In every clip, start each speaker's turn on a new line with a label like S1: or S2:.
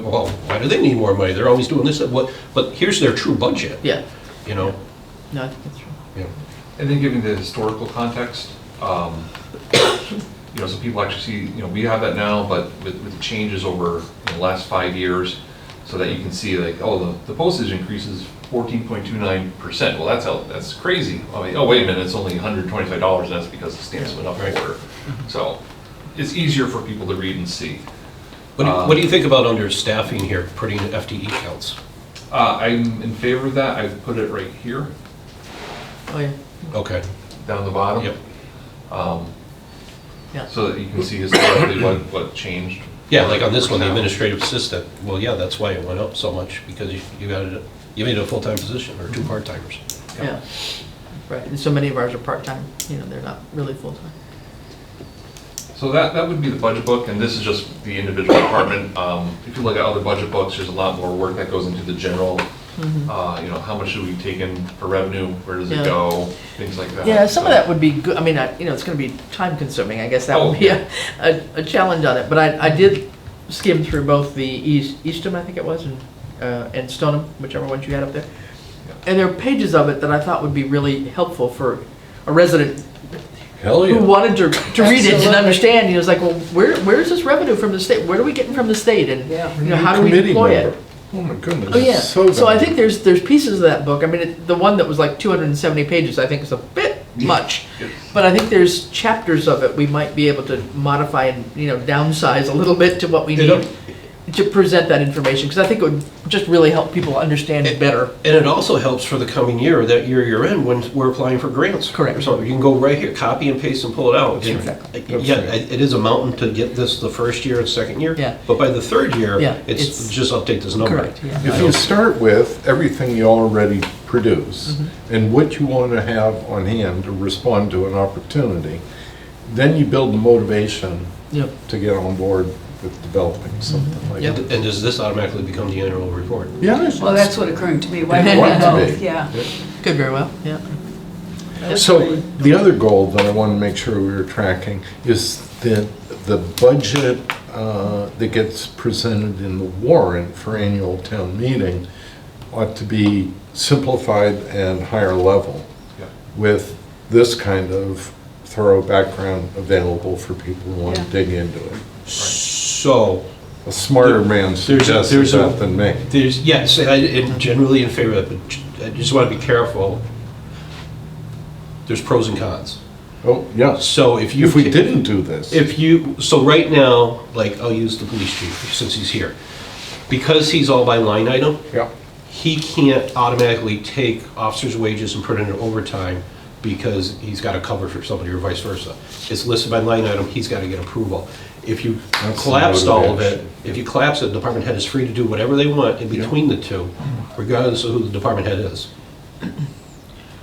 S1: But, well, why do they need more money? They're always doing this, that, what, but here's their true budget.
S2: Yeah,
S1: You know?
S2: no, I think that's right.
S1: Yeah.
S3: And then giving the historical context, um, you know, so people actually see, you know, we have that now, but with, with the changes over you know, the last five years, so that you can see like, oh, the, the postage increases fourteen point two nine percent. Well, that's, how- that's crazy. I mean, oh, wait a minute, it's only hundred twenty-five dollars, and that's because the stamps went up
S1: Right. Mm-hmm.
S3: more. So it's easier for people to read and see.
S1: What do, you- what do you think about under staffing here, putting FTE counts?
S3: Uh, I'm in favor of that. I've put it right here,
S2: Oh, yeah,
S1: Okay,
S3: down the bottom.
S1: yep.
S2: yeah.
S3: So that you can see historically what, what changed.
S1: Yeah, like on this one, the
S3: Percent.
S1: administrative assistant, well, yeah, that's why it went up so much, because you you got it, you made it a full-time position, or two part-timers.
S2: Yeah, right, and so many of ours are part-time, you know, they're not really full-time.
S3: So that, that would be the budget book, and this is just the individual department. Um, If you look at other budget books, there's a lot more work that goes into the general, uh, you know, how much should we take in for revenue, where does
S2: Mm-hmm. Yeah.
S3: it go, things like that.
S2: Yeah, some of that would be good, I mean, I- you know, it's gonna be time-consuming, I guess that
S3: Oh,
S2: would be
S3: yeah.
S2: a, a a challenge on it, but I, I did skim through both the East, Eastham, I think it was, and, uh, and Stoneham, whichever ones you had up there. And there are pages of it that I thought would be really helpful for a resident
S1: Hell
S2: who wanted to, to read it and
S4: Absolutely.
S2: understand, he was like, well, where, where is this revenue from the state? Where are we getting from the state? And,
S4: Yeah.
S2: you know, how do we deploy it?
S5: Oh my goodness.
S2: Oh, yeah.
S5: So,
S2: So I think there's, there's pieces of that book. I mean, it- the one that was like 270 pages, I think is a bit much.
S3: Yes.
S2: But I think there's chapters of it we might be able to modify and, you know, downsize a little bit to what we
S1: It
S2: need to present that information, because I think it would just really help people understand it better.
S1: And it also helps for the coming year, that year you're in, when we're applying for grants.
S2: Correct.
S1: So you can go right here, copy and paste and pull it out.
S2: That's right.
S1: Yeah, it it is a mountain to get this the first year and second year.
S2: Yeah.
S1: But by the third year,
S2: Yeah,
S1: it's
S2: it's-
S1: just update this number.
S2: Correct, yeah.
S5: If you start with everything you already produce
S2: Mm-hmm.
S5: and what you want to have on hand to respond to an opportunity, then you build the motivation
S2: Yeah.
S5: to get on board with developing something like
S1: And
S5: that.
S1: and does this automatically become the annual report?
S5: Yeah.
S4: Well, that's what occurred to me. Why
S2: It
S4: would
S2: wanted
S4: we
S2: to
S4: both?
S5: be.
S4: Yeah.
S2: Could very well, yeah.
S5: So the other goal that I want to make sure we were tracking is the, the budget uh, that gets presented in the warrant for annual town meeting ought to be simplified and higher level
S3: Yeah.
S5: with this kind of thorough background available for people who want to
S4: Yeah.
S5: dig into it.
S1: So,
S5: A smarter man
S1: There's a-
S5: suggested
S1: there's a-
S5: that than me.
S1: there's, yes, I- I'm generally in favor of it, but j- I just want to be careful. There's pros and cons.
S5: Oh, yes.
S1: So if you.
S5: If we
S1: ca-
S5: didn't do this,
S1: If you, so right now, like, I'll use the police chief since he's here. Because he's all by line item,
S5: yeah,
S1: he can't automatically take officers' wages and put it in overtime because he's got to cover for somebody or vice versa. It's listed by line item, he's got to get approval. If you
S5: That's the
S1: collapsed all of it,
S5: motivation.
S1: if you collapse it, the department head is free to do whatever they want in between the two, regardless of who the department head is.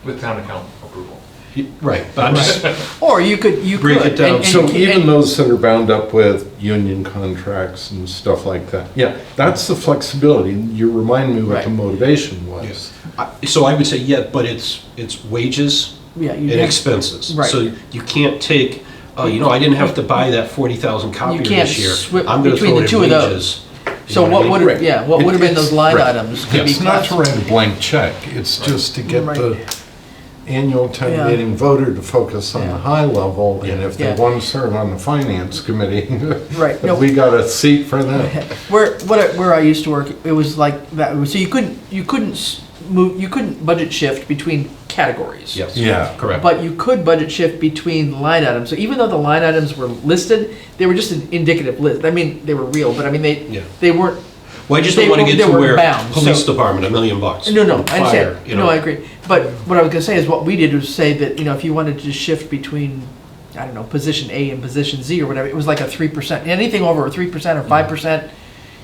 S3: With town account approval.
S1: You- Right, but I'm just,
S2: Or you could, you could.
S1: Break it down.
S2: and- and-
S5: So even
S2: and-
S5: those that are bound up with union contracts and stuff like that, yeah, that's the flexibility. You remind me what
S2: Right.
S5: the motivation was.
S1: I- so I would say, yeah, but it's, it's wages
S2: Yeah, you
S1: and
S2: have-
S1: expenses.
S2: Right.
S1: So you can't take, oh, you know, I didn't have to buy that 40,000 copier
S2: can't
S1: this year.
S2: swip
S1: I'm gonna
S2: between
S1: throw
S2: the
S1: it
S2: two
S1: in
S2: of those.
S1: wages. You know
S2: So what
S1: I mean?
S2: would,
S5: Right.
S2: yeah, what would have been those line
S5: Right.
S2: items could be
S5: It's not
S2: classified.
S5: to write a blank check, it's just to get the annual
S2: Yeah.
S5: town meeting voter to focus on
S2: Yeah.
S5: the high level, and if they
S2: Yeah.
S5: want to serve on the finance committee,
S2: Right, no.
S5: have we got a seat for them.
S2: Where, what, I- where I used to work, it was like that, so you couldn't, you couldn't s- move, you couldn't budget shift between categories.
S1: Yes.
S5: Yeah.
S1: Correct.
S2: But you could budget shift between line items, so even though the line items were listed, they were just an indicative list, I mean, they were real, but I mean,
S1: Yeah.
S2: they, they weren't,
S1: Well, I just
S2: they
S1: don't want to
S2: were-
S1: get
S2: they
S1: to
S2: were
S1: where
S2: bound,
S1: police
S2: so-
S1: department, a million bucks.
S2: no, no, I
S1: Fire, you
S2: understand, no,
S1: know.
S2: I agree. But what I was gonna say is, what we did was say that, you know, if you wanted to shift between, I don't know, position A and position Z or whatever, it was like a three percent, anything over a three percent or five
S1: Mm-hmm.
S2: percent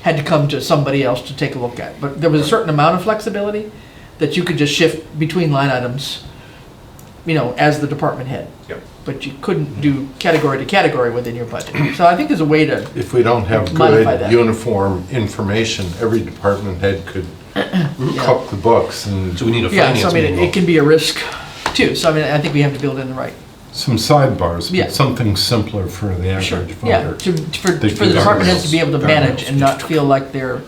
S2: had to come to somebody else to take a look at, but there was a certain amount of flexibility that you could just shift between line items, you know, as the department head.
S3: Yep.
S2: But you
S1: Mm-hmm.
S2: couldn't do category to category within your budget, so I think there's a way to,
S5: If we don't have
S2: Modify that.
S5: good, uniform information, every department head could cup the books and
S1: So we need a
S2: yeah, so I
S1: finance
S2: mean, it-
S1: manual.
S2: it can be a risk too, so I mean, I think we have to build in the right
S5: some sidebars,
S2: Yeah.
S5: but something simpler for the
S2: Sure,
S5: average
S2: yeah,
S5: voter.
S2: to, for, for the
S5: They do
S2: department
S5: guardrails.
S2: heads to be able to manage and not feel like they're